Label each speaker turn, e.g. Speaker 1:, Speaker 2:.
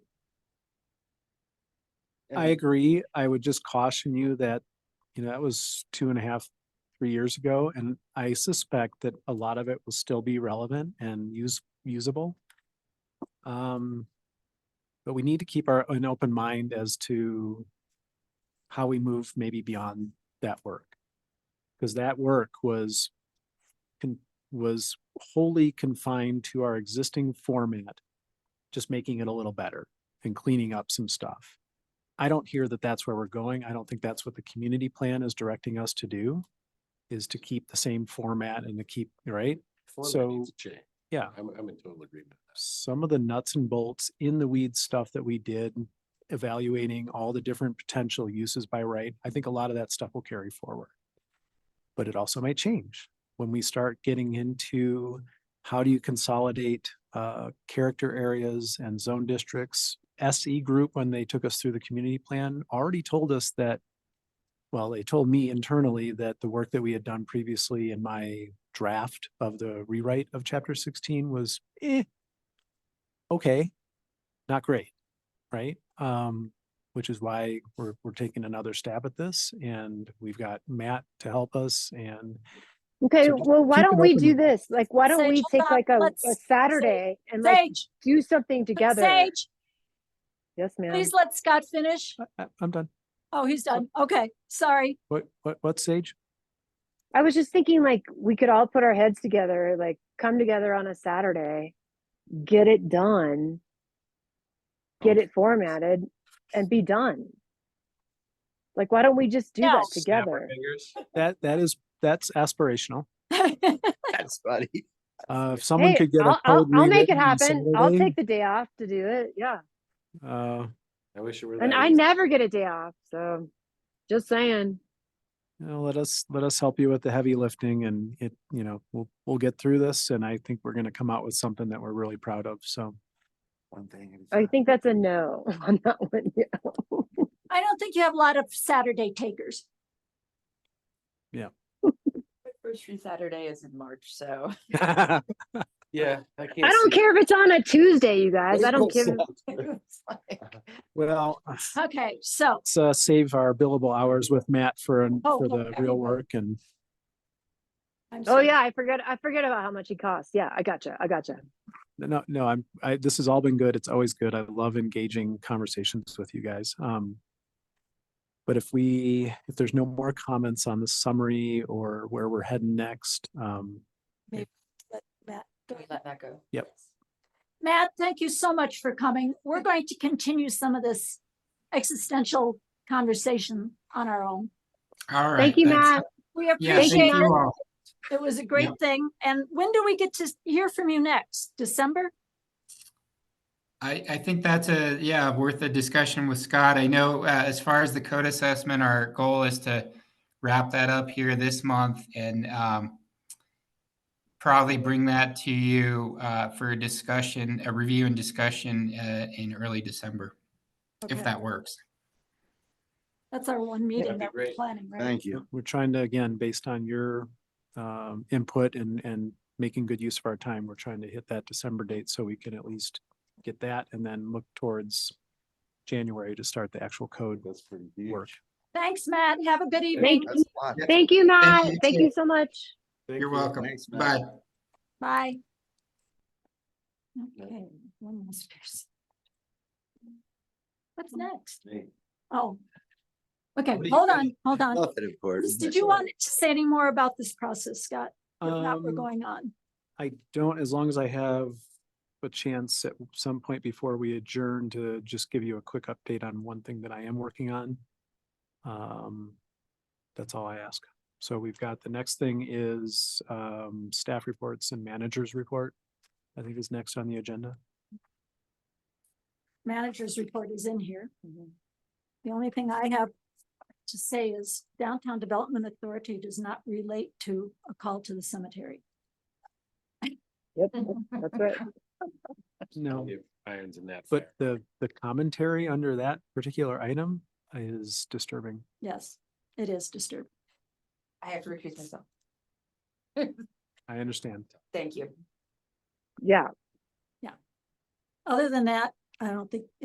Speaker 1: I
Speaker 2: Mm-hmm.
Speaker 3: Mhm.
Speaker 1: agree. I would just caution you that, you know, that was two and a half, three years ago, and I suspect that a lot of it will still be relevant and use, usable. Um, but we need to keep our, an open mind as to how we move maybe beyond that work. Because that work was con- was wholly confined to our existing format, just making it a little better and cleaning up some stuff. I don't hear that that's where we're going. I don't think that's what the community plan is directing us to do, is to keep the same format and to keep, right?
Speaker 2: Format
Speaker 1: So-
Speaker 2: needs to change.
Speaker 1: Yeah.
Speaker 2: I'm, I'm in total agreement. with
Speaker 1: Some of the nuts and bolts in the weeds stuff that we did, evaluating all the different potential uses by right, I think a lot of that stuff will carry forward. But it also might change when we start getting into how do you consolidate uh, character areas and zone districts? SE Group, when they took us through the community plan, already told us that, well, they told me internally that the work that we had done previously in my draft of the rewrite of chapter sixteen was eh, okay, not great, right? Um, which is why we're, we're taking another stab at this and we've got Matt to help us and
Speaker 3: Okay,
Speaker 1: So just
Speaker 3: well, why
Speaker 1: keep
Speaker 3: don't
Speaker 1: an
Speaker 3: we
Speaker 1: open
Speaker 3: do
Speaker 1: mind.
Speaker 3: this? Like, why don't
Speaker 4: Sage,
Speaker 3: we
Speaker 4: hold
Speaker 3: take
Speaker 4: on.
Speaker 3: like a,
Speaker 4: Let's-
Speaker 3: a
Speaker 4: Sage,
Speaker 3: Saturday and like
Speaker 4: Sage,
Speaker 3: do something
Speaker 4: but
Speaker 3: together?
Speaker 4: Sage,
Speaker 3: Yes, ma'am.
Speaker 4: please let Scott finish.
Speaker 1: I- I- I'm done.
Speaker 4: Oh, he's done. Okay, sorry.
Speaker 1: What, what, what Sage?
Speaker 3: I was just thinking like we could all put our heads together, like come together on a Saturday, get it done, get it formatted and be done. Like, why don't we just do
Speaker 4: No.
Speaker 3: that
Speaker 2: Snap our
Speaker 3: together?
Speaker 2: fingers.
Speaker 1: That, that is, that's aspirational.
Speaker 2: That's funny.
Speaker 1: Uh, if someone
Speaker 3: Hey,
Speaker 1: could get
Speaker 3: I'll,
Speaker 1: a
Speaker 3: I'll,
Speaker 1: code
Speaker 3: I'll make it
Speaker 1: rewritten on
Speaker 3: happen. I'll
Speaker 1: Saturday,
Speaker 3: take the day off to do it. Yeah.
Speaker 1: Uh,
Speaker 2: I wish it were.
Speaker 3: And
Speaker 2: that
Speaker 3: I
Speaker 2: easy.
Speaker 3: never get a day off. So just saying.
Speaker 1: you know, let us, let us help you with the heavy lifting and it, you know, we'll, we'll get through this and I think we're gonna come out with something that we're really proud of, so.
Speaker 2: One thing. at a
Speaker 3: I
Speaker 2: time.
Speaker 3: think that's a no on that one. yeah.
Speaker 4: I don't think you have a lot of Saturday takers.
Speaker 5: My First free Saturday is in March, so
Speaker 1: That's
Speaker 2: Yeah. I
Speaker 3: I don't care if it's on a Tuesday, you guys. I don't give.
Speaker 5: it's like,
Speaker 1: Well,
Speaker 4: Okay, so,
Speaker 1: let's uh, save our billable hours with Matt for, an-
Speaker 4: Oh,
Speaker 1: for the
Speaker 4: okay.
Speaker 1: real work and
Speaker 4: I'm
Speaker 3: Oh
Speaker 4: sorry.
Speaker 3: yeah, I forget. I forget about how much it costs. Yeah, I gotcha. I gotcha.
Speaker 1: no, no, I'm, I, this has all been good. It's always good. I love engaging conversations with you guys. Um, but if we, if there's no more comments on the summary or where we're heading next, um,
Speaker 4: Let Matt go
Speaker 5: can we
Speaker 4: ahead.
Speaker 5: let that go?
Speaker 1: Yep.
Speaker 5: please?
Speaker 4: Matt, thank you so much for coming. We're going to continue some of this existential conversation on our own.
Speaker 6: All right.
Speaker 3: Thank you,
Speaker 6: that's-
Speaker 3: Matt.
Speaker 4: We
Speaker 6: Yeah, thank
Speaker 4: appreciate
Speaker 6: you
Speaker 4: it.
Speaker 6: all.
Speaker 4: It was a great thing. And when do we get to hear from you next? December?
Speaker 6: I, I think that's a, yeah, worth a discussion with Scott. I know, uh, as far as the code assessment, our goal is to wrap that up here this month and, um, probably bring that to you, uh, for a discussion, a review and discussion, uh, in early December, if
Speaker 4: Okay.
Speaker 6: that works.
Speaker 4: That's our one meeting
Speaker 2: That'd be
Speaker 4: that we're
Speaker 2: great.
Speaker 4: planning, right?
Speaker 7: Thank you.
Speaker 1: we're trying to, again, based on your, um, input and, and making good use of our time, we're trying to hit that December date so we can at least get that and then look towards January to start the actual code
Speaker 2: That's pretty
Speaker 1: work.
Speaker 2: huge.
Speaker 4: Thanks, Matt. Have a good evening.
Speaker 3: Thank
Speaker 7: That's a lot.
Speaker 6: Yeah.
Speaker 3: Thank you, Matt.
Speaker 6: you,
Speaker 3: Thank
Speaker 6: too.
Speaker 3: you so much.
Speaker 2: Thank
Speaker 6: You're
Speaker 2: you.
Speaker 6: welcome.
Speaker 2: Thanks, Matt.
Speaker 6: Bye.
Speaker 4: Bye.
Speaker 2: Yeah.
Speaker 4: Okay, one more space. What's next?
Speaker 2: Hey,
Speaker 4: Oh. Okay,
Speaker 2: What do you
Speaker 4: hold
Speaker 2: think?
Speaker 4: on, hold on.
Speaker 7: Nothing important.
Speaker 4: Did you want to say any more about this process, Scott? If not, we're
Speaker 1: Um,
Speaker 4: going on.
Speaker 1: I don't, as long as I have a chance at some point before we adjourn to just give you a quick update on one thing that I am working on. Um, that's all I ask. So we've got, the next thing is, um, staff reports and managers report. I think is next on the agenda.
Speaker 4: Manager's report is in here. The only thing I have to say is Downtown Development Authority does not relate to a call to the cemetery.
Speaker 3: Yep, that's right.
Speaker 1: No,
Speaker 2: if Irons in that.
Speaker 1: but
Speaker 2: fire.
Speaker 1: the, the commentary under that particular item is disturbing.
Speaker 4: Yes, it is disturbing.
Speaker 5: I have to recuse myself.
Speaker 1: I understand.
Speaker 5: Thank you.
Speaker 3: Yeah.
Speaker 4: Other than that, I don't think